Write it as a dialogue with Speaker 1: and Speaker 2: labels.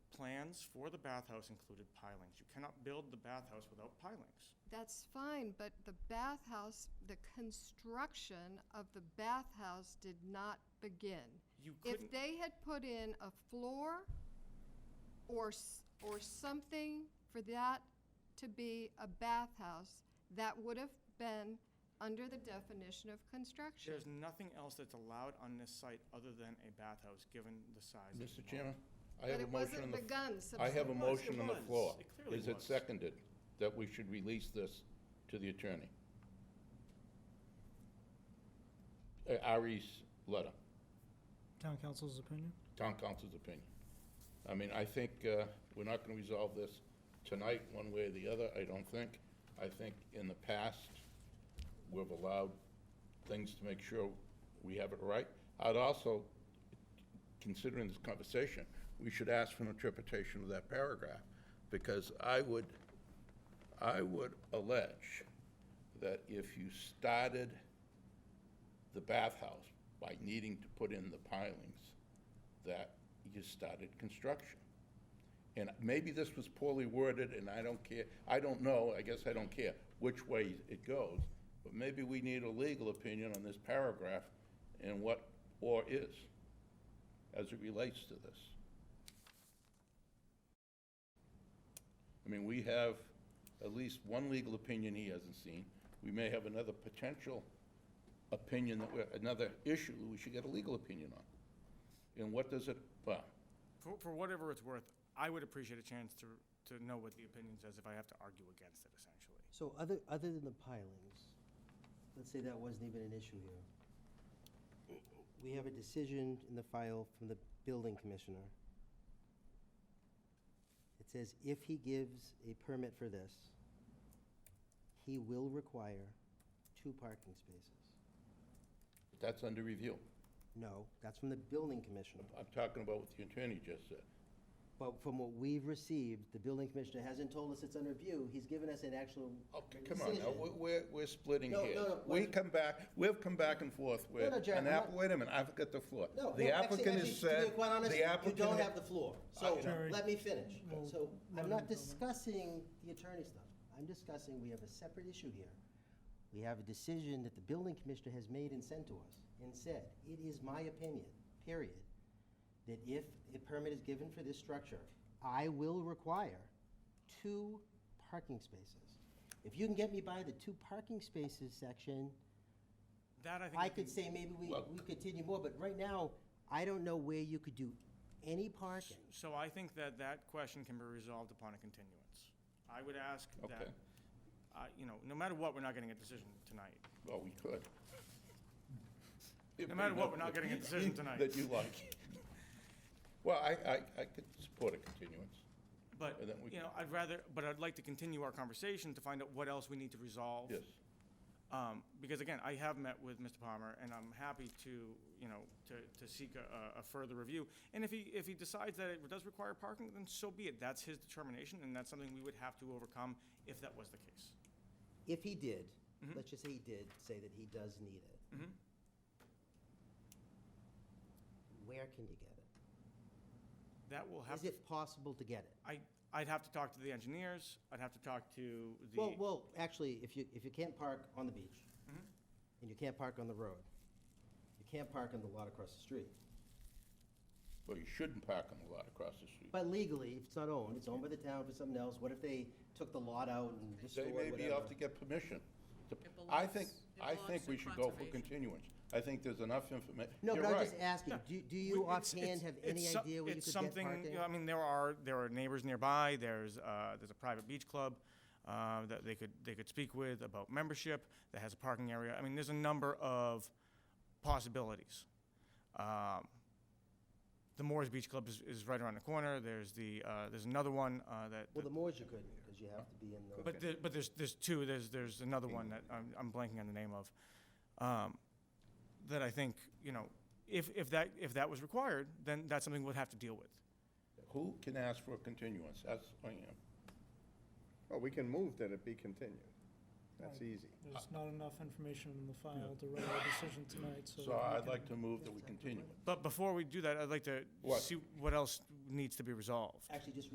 Speaker 1: plans for the bathhouse included pilings. You cannot build the bathhouse without pilings.
Speaker 2: That's fine, but the bathhouse, the construction of the bathhouse did not begin.
Speaker 1: You
Speaker 2: If
Speaker 1: couldn't,
Speaker 2: they had put in a floor or, s- or something for that to be a bathhouse, that would have been under the definition of construction.
Speaker 1: there's nothing else that's allowed on this site other than a bathhouse, given the size. of the
Speaker 3: Mr.
Speaker 1: lot.
Speaker 3: Chairman, I
Speaker 2: But
Speaker 3: have a
Speaker 2: it
Speaker 3: motion on
Speaker 2: wasn't
Speaker 3: the...
Speaker 2: begun
Speaker 3: I have a
Speaker 2: subsequently.
Speaker 1: Yes, it
Speaker 3: motion on the
Speaker 1: was.
Speaker 3: floor.
Speaker 1: It clearly
Speaker 3: Is it
Speaker 1: was.
Speaker 3: seconded that we should release this to the attorney? Uh, Ari's letter,
Speaker 4: Town council's opinion?
Speaker 3: town council's opinion. I mean, I think uh, we're not going to resolve this tonight, one way or the other, I don't think. I think in the past, we've allowed things to make sure we have it right. I'd also, considering this conversation, we should ask for an interpretation of that paragraph, because I would, I would allege that if you started the bathhouse by needing to put in the pilings, that you started construction. And maybe this was poorly worded, and I don't care, I don't know, I guess I don't care which way it goes, but maybe we need a legal opinion on this paragraph and what "or" is as it relates to this. I mean, we have at least one legal opinion he hasn't seen. We may have another potential opinion that we're, another issue that we should get a legal opinion on. And what does it, well,
Speaker 1: For, for whatever it's worth, I would appreciate a chance to, to know what the opinion says if I have to argue against it, essentially.
Speaker 5: So other, other than the pilings, let's say that wasn't even an issue here. We have a decision in the file from the building commissioner. It says if he gives a permit for this, he will require two parking spaces.
Speaker 3: that's under review.
Speaker 5: No, that's from the building commissioner.
Speaker 3: I'm talking about what the attorney just said.
Speaker 5: But from what we've received, the building commissioner hasn't told us it's under review. He's given us an actual
Speaker 3: Okay, come on, now,
Speaker 5: decision.
Speaker 3: we're- we're, we're splitting
Speaker 5: No, no, no,
Speaker 3: here. We
Speaker 5: wait.
Speaker 3: come back, we've come back and forth with,
Speaker 5: no, Jack,
Speaker 3: an
Speaker 5: I'm
Speaker 3: app,
Speaker 5: not-
Speaker 3: wait a minute, I've got the floor.
Speaker 5: No,
Speaker 3: The
Speaker 5: no, actually-
Speaker 3: applicant has
Speaker 5: actually, to be
Speaker 3: said,
Speaker 5: quite honest,
Speaker 3: the applicant.
Speaker 5: You don't have the floor, so
Speaker 4: Jerry.
Speaker 5: let me finish.
Speaker 4: Well,
Speaker 5: So
Speaker 4: let
Speaker 5: I'm
Speaker 4: him
Speaker 5: not
Speaker 4: go.
Speaker 5: discussing the attorney stuff. I'm discussing, we have a separate issue here. We have a decision that the building commissioner has made and sent to us and said, it is my opinion, period, that if a permit is given for this structure, I will require two parking spaces. If you can get me by the two parking spaces section,
Speaker 1: That I think.
Speaker 5: I
Speaker 1: we
Speaker 5: could
Speaker 1: can-
Speaker 5: say maybe we,
Speaker 3: Well-
Speaker 5: we continue more, but right now, I don't know where you could do any parking.
Speaker 1: So I think that that question can be resolved upon a continuance. I would ask that,
Speaker 3: Okay.
Speaker 1: uh, you know, no matter what, we're not getting a decision tonight.
Speaker 3: Well, we could.
Speaker 1: No matter what, we're not getting a decision tonight.
Speaker 3: That you like. Well, I, I, I could support a continuance.
Speaker 1: But,
Speaker 3: And then we-
Speaker 1: you know, I'd rather, but I'd like to continue our conversation to find out what else we need to resolve.
Speaker 3: Yes,
Speaker 1: Um, Because again, I have met with Mr. Palmer, and I'm happy to, you know, to, to seek a, a further review. And if he, if he decides that it does require parking, then so be it. That's his determination, and that's something we would have to overcome if that was the case.
Speaker 5: If he did,
Speaker 3: Mm-hmm.
Speaker 5: let's just say he did say that he does need it. Where can you get it?
Speaker 1: That will have,
Speaker 5: Is it possible to get it?
Speaker 1: I, I'd have to talk to the engineers, I'd have to talk to the.
Speaker 5: Well, well, actually, if you, if you can't park on the beach,
Speaker 3: Mm-hmm.
Speaker 5: and you can't park on the road, you can't park on the lot across the street.
Speaker 3: well, you shouldn't park on the lot across the street.
Speaker 5: But legally, if it's not owned, it's owned by the town for something else, what if they took the lot out and
Speaker 3: They
Speaker 5: restored
Speaker 3: may
Speaker 5: whatever?
Speaker 3: be off to get permission. to-
Speaker 6: It
Speaker 3: I think,
Speaker 6: belongs- it
Speaker 3: I think
Speaker 6: belongs
Speaker 3: we
Speaker 6: to
Speaker 3: should go for
Speaker 6: conservation.
Speaker 3: continuance. I think there's enough information.
Speaker 5: No, but I'm just asking, do, do you
Speaker 1: Well, it's-
Speaker 5: offhand
Speaker 1: it's-
Speaker 5: have
Speaker 1: it's
Speaker 5: any
Speaker 1: so-
Speaker 5: idea where you
Speaker 1: it's
Speaker 5: could get
Speaker 1: something- you
Speaker 5: parking?
Speaker 1: know, I mean, there are, there are neighbors nearby, there's, uh, there's a private beach club, uh, that they could, they could speak with about membership, that has a parking area. I mean, there's a number of possibilities. Um, the Moores Beach Club is, is right around the corner, there's the, uh, there's another one, uh, that,
Speaker 5: Well, the Moors you couldn't, because you have to be in the,
Speaker 1: but there, but there's, there's two, there's, there's another one that I'm, I'm blanking on the name of, um, that I think, you know, if, if that, if that was required, then that's something we'd have to deal with.
Speaker 3: Who can ask for a continuance? That's, I am.
Speaker 7: Well, we can move that it be continued. That's easy.
Speaker 4: There's not enough information in the file to write a decision tonight, so.
Speaker 3: So I'd like to move that we continue it.
Speaker 1: But before we do that, I'd like to
Speaker 3: What?
Speaker 1: see what else needs to be resolved.
Speaker 5: actually, just